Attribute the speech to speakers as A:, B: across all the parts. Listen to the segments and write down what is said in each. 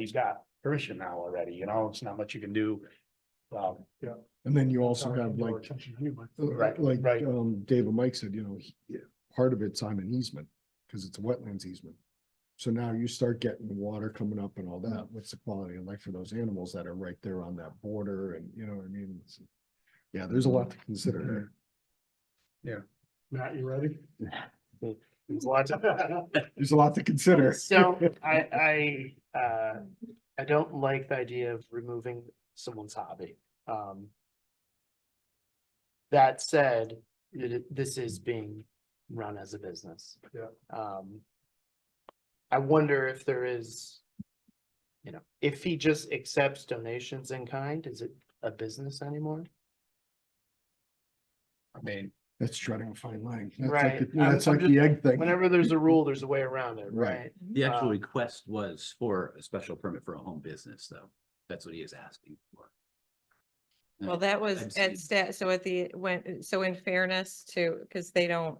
A: he's got permission now already, you know, it's not much you can do. Um,
B: And then you also
C: Sorry,
B: have
C: your
B: like,
C: attention to you, but-
B: uh,
A: Right,
B: like,
A: right.
B: um, Dave and Mike said, you know, he- part of it's on an easement, because it's a wetlands easement. So now you start getting water coming up and all that,
D: Mm-hmm.
B: what's the quality of life for those animals that are right there on that border and, you know what I mean? It's- Yeah, there's a lot to consider there.
D: Mm-hmm.
C: Matt, you ready?
A: there's lots of-
B: There's a lot to consider.
D: So I, I, uh, I don't like the idea of removing someone's hobby. Um. That said, it, it- this is being run as a business.
C: Yeah.
D: Um. I wonder if there is. You know, if he just accepts donations in kind, is it a business anymore?
A: I mean,
B: That's treading a fine line. That's like
D: Right.
B: the-
D: I'm-
B: That's
D: I'm
B: like
D: just-
B: the egg thing.
D: Whenever there's a rule, there's a way around it,
B: Right.
D: right?
E: The
F: Um,
E: actual
D: Uh,
E: request was for a special permit for a home business, though. That's what he is asking for. Uh,
F: Well, that was
E: Absolutely.
F: at stat, so at the, when, so in fairness to, because they don't.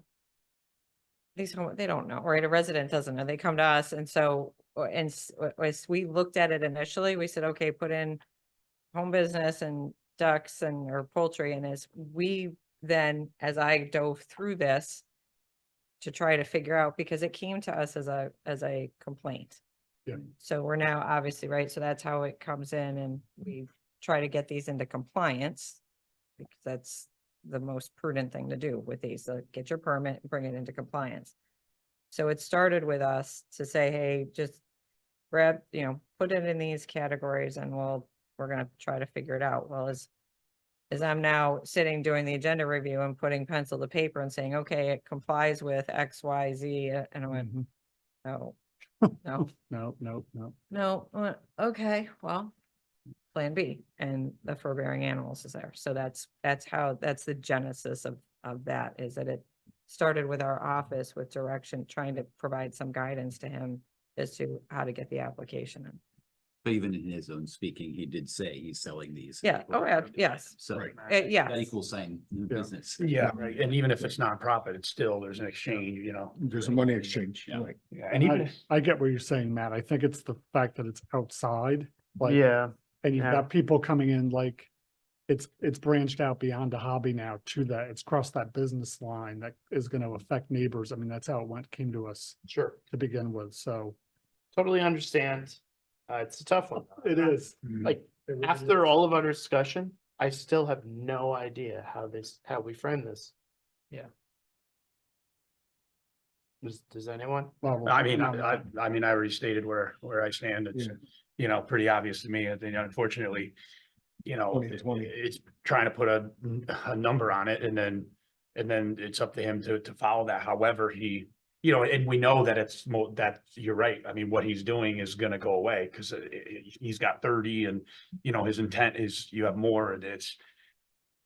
F: These, home- they don't know, right? A resident doesn't know. They come to us and so, uh, and s- uh, as we looked at it initially, we said, okay, put in. Home business and ducks and or poultry and as we then, as I dove through this. To try to figure out, because it came to us as a, as a complaint.
C: Yeah.
F: So we're now obviously, right? So that's how it comes in and we try to get these into compliance. Because that's the most prudent thing to do with these, uh, get your permit, bring it into compliance. So it started with us to say, hey, just grab, you know, put it in these categories and we'll, we're gonna try to figure it out. Well, as as I'm now sitting doing the agenda review and putting pencil to paper and saying, okay, it complies with X, Y, Z, uh, and I went, no, no.
A: Mm-hmm. no, no, no.
F: No, I went, okay, well, plan B and the forbearing animals is there. So that's, that's how, that's the genesis of, of that is that it started with our office with direction, trying to provide some guidance to him as to how to get the application in.
E: But even in his own speaking, he did say he's selling these.
F: Yeah, oh, yeah, yes.
E: So
B: Right.
F: Uh, yeah.
E: that equals saying new
C: Yeah.
E: business.
A: Yeah, right, and even if it's nonprofit, it's still, there's an exchange, you know.
B: There's a money exchange,
E: Yeah.
B: right?
A: Yeah, And even, if-
C: I get what you're saying, Matt. I think it's the fact that it's outside, like, and you've
D: yeah.
C: got people coming in like, it's, it's branched out beyond a hobby now to that. It's crossed that business line that is going to affect neighbors. I mean, that's how it went, came to us
D: Sure,
C: to begin with, so.
D: totally understand. Uh, it's a tough one.
C: It is.
D: Like,
C: It really
D: After
C: is.
D: all of our discussion, I still have no idea how this, how we frame this. Yeah. Does, does anyone?
C: Well,
A: I mean,
C: no,
A: I, I- I mean, I already stated where, where I stand. It's,
B: Yeah.
A: you know, pretty obvious to me. I think unfortunately, you know,
B: Twenty to
A: it-
B: twenty.
A: it's trying to put a, a number on it and then, and then it's up to him to, to follow that. However, he, you know, and we know that it's more, that you're right. I mean, what he's doing is gonna go away because he's got thirty and, you know, his intent is you have more and it's,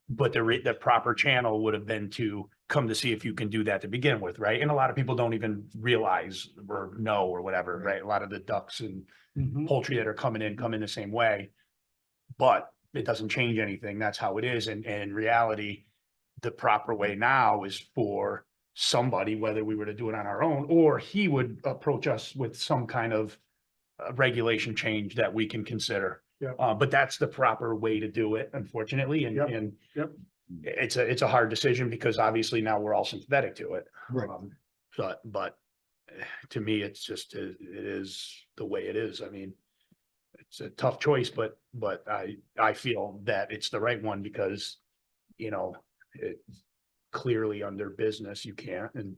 A: but the re- the proper channel would have been to come to see if you can do that to begin with, right? And a lot of people don't even realize or know or whatever, right? A lot of the ducks and
C: Mhm.
A: poultry that are coming in come in the same way. But it doesn't change anything. That's how it is. And, and in reality, the proper way now is for somebody, whether we were to do it on our own, or he would approach us with some kind of uh, regulation change that we can consider.
C: Yep.
A: Uh, but that's the proper way to do it, unfortunately, and,
C: Yep,
A: and
C: yep.
A: it's a, it's a hard decision because obviously now we're all sympathetic to it.
B: Right.
A: Um, But, but eh, to me, it's just, it it is the way it is. I mean, it's a tough choice, but, but I, I feel that it's the right one because, you know, it clearly under business, you can't and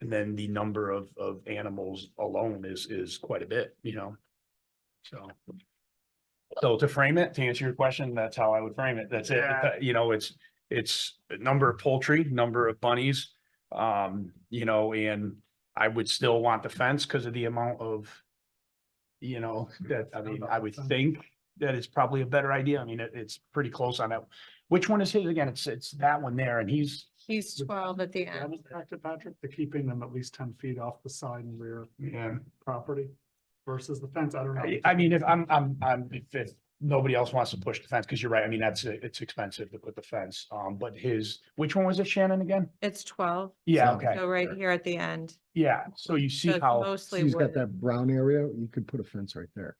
A: and then the number of, of animals alone is, is quite a bit, you know? So. So to frame it, to answer your question, that's how I would frame it. That's it.
D: Yeah.
A: You know, it's, it's a number of poultry, number of bunnies. Um, you know, and I would still want the fence because of the amount of, you know, that, I mean, I would think that it's probably a better idea. I mean, it, it's pretty close on that. Which one is his again? It's, it's that one there and he's,
F: He's
C: Would-
F: twelve at the
C: That was Dr. Patrick, the keeping them at least ten feet off the side and rear
A: yeah.
C: property versus the fence. I don't know.
A: I, I mean, if I'm, I'm, I'm, if, if nobody else wants to push the fence, because you're right, I mean, that's, it's expensive to put the fence, um, but his, which one was it, Shannon, again?
F: It's twelve,
A: Yeah,
B: So-
A: okay,
F: so right here at the end.
A: yeah, so you see
F: So it's
A: how.
F: Mostly
B: He's got
F: wooded.
B: that brown area, you could put a fence right there.